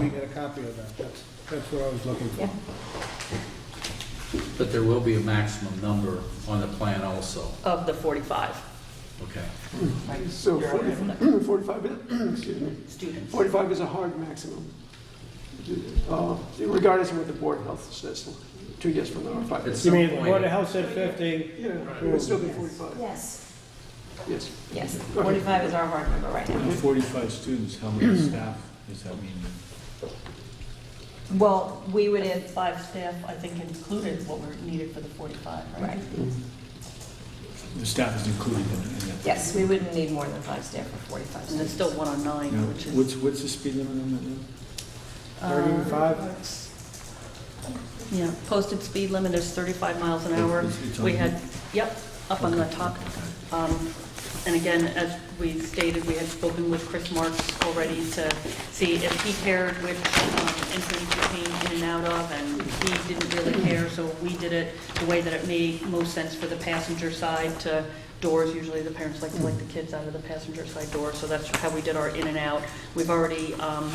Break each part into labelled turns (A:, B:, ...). A: can get a copy of that, that's, that's what I was looking for.
B: Yeah.
C: But there will be a maximum number on the plan also,
B: of the 45
C: okay?
D: So 40 45, is- excuse me,
B: students.
D: 45 is a hard maximum, Uh, regardless of what the Board of Health says, two years from now, or five
C: At
D: years.
C: some
E: You mean, the
C: point-
E: Board of Health said 50,
D: Yeah, it would still be 45,
B: Yes,
D: yes.
B: yes, 45 is our hard number right now.
F: With 45 students, how many staff does that mean?
B: Well, we would, in-
G: Five staff, I think included what were needed for the 45, right?
B: right,
F: The staff is included in in that?
B: yes, we wouldn't need more than five staff for 45
G: And there's
B: students.
G: still one on
F: Now,
G: nine, which is.
F: What's, what's the speed limit on that now?
G: uh,
E: 35?
G: Yeah, posted speed limit is 35 miles an hour.
F: It's- it's on
G: We
F: here.
G: had, yep, up on the top. Um, And again, as we stated, we had spoken with Chris Marks already to see if he cared which um, entrance you came in and out of, and he didn't really care, so we did it the way that it made most sense for the passenger side to doors. Usually the parents like to let the kids out of the passenger side door, so that's how we did our in and out. We've already um,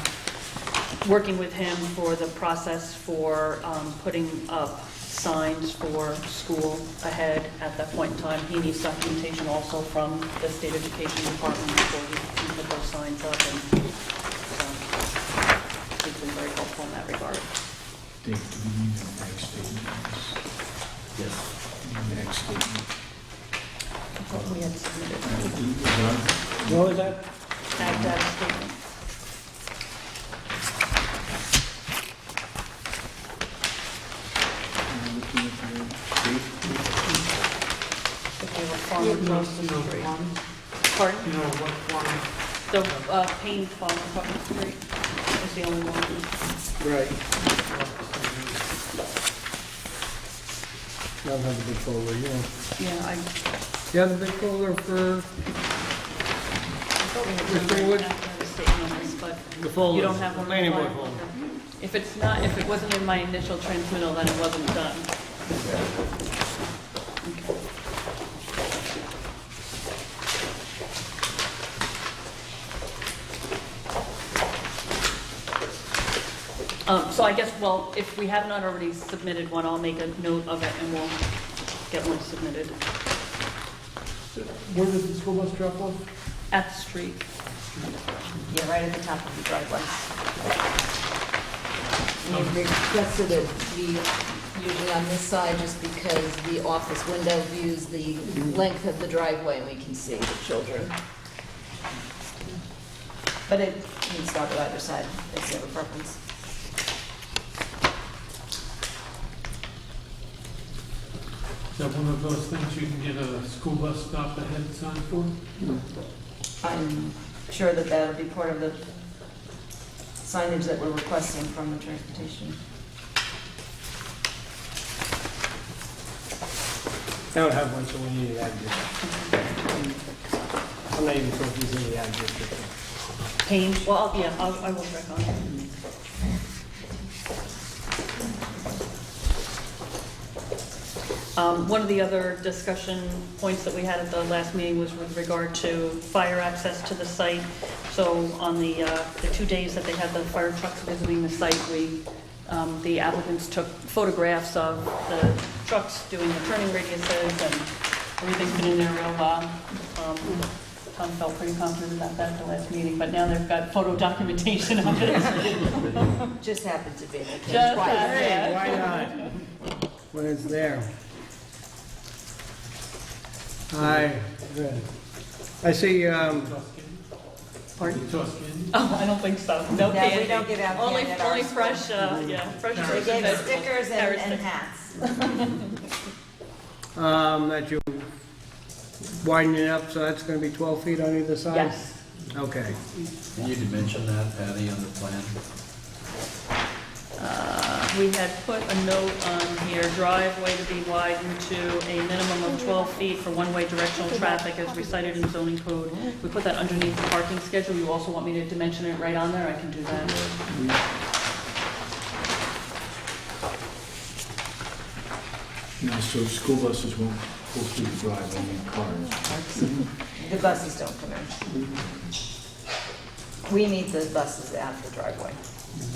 G: working with him for the process for um, putting up signs for school ahead at that point in time. He needs documentation also from the state education department before he can put those signs up, and so he's been very helpful in that regard.
F: Dave, do we need the next statement?
C: Yes.
F: The Next statement.
G: I thought we had submitted
E: What was that?
G: that data statement.
F: I'm looking at the date.
G: if they were farm across the street. Pardon? You know, what farm? The uh, Payne Farm across the street is the only one.
A: Right. I don't have a big folder, you know.
G: Yeah, I
A: You have a big folder for
G: Mr.
A: Greenwood?
G: Greenwood?
E: The folder,
G: You don't have one?
E: planning board
G: Okay.
E: folder.
G: If it's not, if it wasn't in my initial transmittal, then it wasn't done. Okay. Um, So I guess, well, if we have not already submitted one, I'll make a note of it and we'll get one submitted
D: Where does the school bus drop off?
G: at the street.
B: Yeah, right at the top of the driveway.
H: We requested it be usually on this side just because the office window views the length of the driveway and we can see the children. But it can stop at either side if you have a preference.
I: Is that one of those things you can get a school bus stop ahead sign for?
H: I'm sure that that'll be part of the signage that we're requesting from the transportation.
E: I don't have one, so we need the ad district. I'm not even sure if he's in the ad district.
G: Payne, well, I'll- yeah, I'll- I will check on it. Um, One of the other discussion points that we had at the last meeting was with regard to fire access to the site. So on the, uh, the two days that they had the fire trucks visiting the site, we, um, the applicants took photographs of the trucks doing the turning radiuses and everything's been in there real well. Um, Tom felt pretty confident about that at the last meeting, but now they've got photo documentation of it.
H: Just happened to be in the case
G: Just
H: twice.
G: that, yeah.
E: Why not?
A: when it's there. Hi, good. I see, um,
G: Pardon?
I: Toss candy?
G: Oh, I don't think so. No
B: No, we
G: candy.
B: don't give out
G: Only,
B: candy at our
G: only
B: school.
G: fresh, uh, yeah, fresh
B: They
G: fruits and
B: gave
G: vegetables.
B: stickers and
G: Carrots
B: and
G: and-
B: hats.
A: um, that you widen it up, so that's gonna be twelve feet on either side?
G: Yes.
A: Okay.
C: Can you dimension that, Patty, on the plan?
G: Uh, We had put a note on here, driveway to be widened to a minimum of 12 feet for one-way directional traffic as recited in zoning code. We put that underneath the parking schedule. You also want me to dimension it right on there? I can do that.
F: No, so school buses won't go through the drive, only cars.
H: The buses don't come in. We need the buses out the driveway.